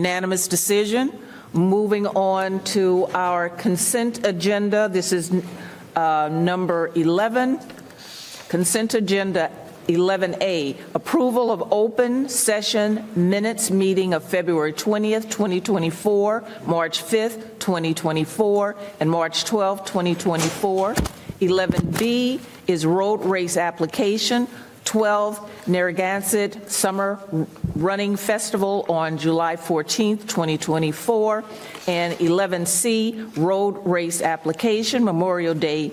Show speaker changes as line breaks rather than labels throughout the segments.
Unanimous decision. Moving on to our consent agenda. This is uh, number 11. Consent agenda 11A, approval of open session minutes meeting of February 20th, 2024, March 5th, 2024, and March 12th, 2024. 11B is road race application. 12, Narragansett Summer Running Festival on July 14th, 2024. And 11C, road race application, Memorial Day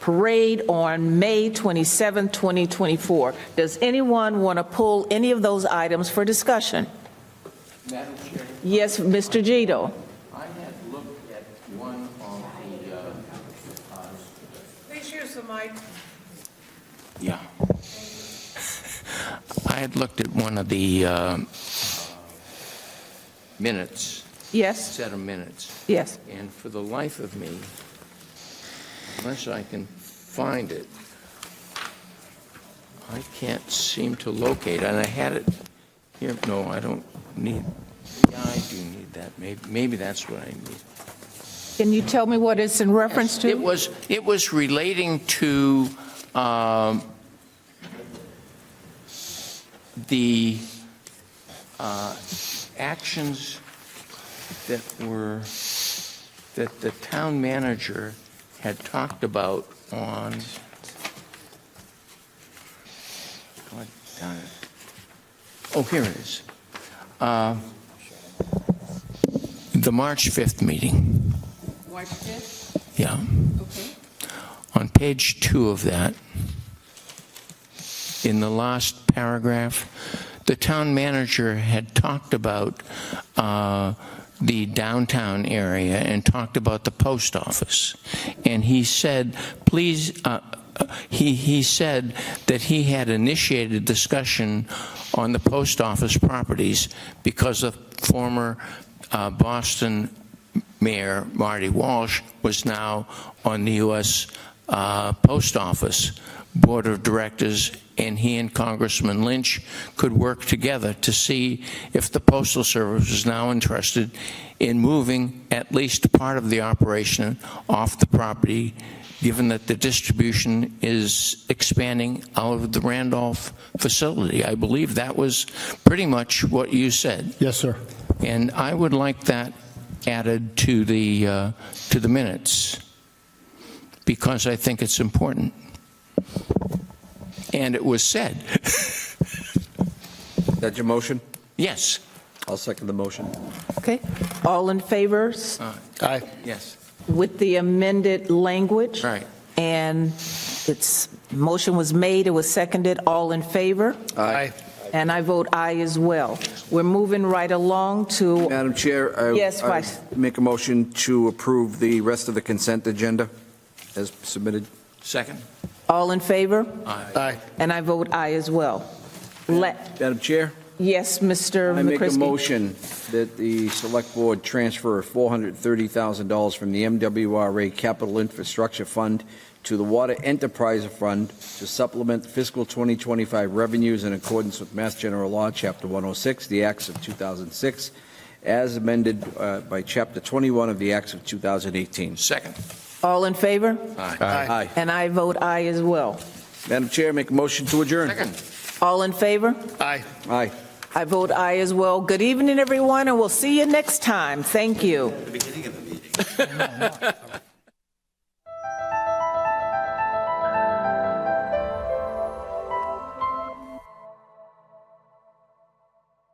Parade on May 27, 2024. Does anyone want to pull any of those items for discussion?
Madam Chair,
Yes, Mr. Gito?
I had looked at one on the, uh,
Please use the mic.
yeah. I had looked at one of the uh, minutes,
Yes,
set of minutes,
yes.
and for the life of me, unless I can find it, I can't seem to locate, and I had it here, no, I don't need, yeah, I do need that, maybe, maybe that's what I need.
Can you tell me what it's in reference
It
to?
was, it was relating to um, the uh, actions that were, that the town manager had talked about on, God darn it. Oh, here it is. Uh, The March 5th meeting,
March 5th,
yeah.
okay.
On page two of that, in the last paragraph, the town manager had talked about uh, the downtown area and talked about the post office. And he said, please, uh, uh, he, he said that he had initiated discussion on the post office properties because of former uh, Boston Mayor Marty Walsh was now on the U.S. uh, Post Office Board of Directors, and he and Congressman Lynch could work together to see if the Postal Service was now interested in moving at least part of the operation off the property, given that the distribution is expanding out of the Randolph facility. I believe that was pretty much what you said.
Yes, sir.
And I would like that added to the, uh, to the minutes, because I think it's important. And it was said,
That's your motion?
yes,
I'll second the motion.
Okay. All in favor s-
Aye.
Uh, yes,
with the amended language?
right.
And its motion was made, it was seconded, all in favor?
Aye.
And I vote aye as well. We're moving right along to,
Madam Chair, I...
Yes,
I
Vice.
Make a motion to approve the rest of the consent agenda as submitted.
Second?
all in favor?
Aye.
And I vote aye as well. Let,
Madam Chair,
yes, Mr.
I make a
McCrisky?
motion that the Select Board transfer $430,000 from the MWRA Capital Infrastructure Fund to the Water Enterprise Fund to supplement fiscal 2025 revenues in accordance with Mass General Law, Chapter 106, the Acts of 2006, as amended uh, by Chapter 21 of the Acts of 2018.
Second.
All in favor?
Aye.
And I vote aye as well.
Madam Chair, make a motion to adjourn.
Second.
All in favor?
Aye.
Aye.
I vote aye as well. Good evening, everyone, and we'll see you next time. Thank you.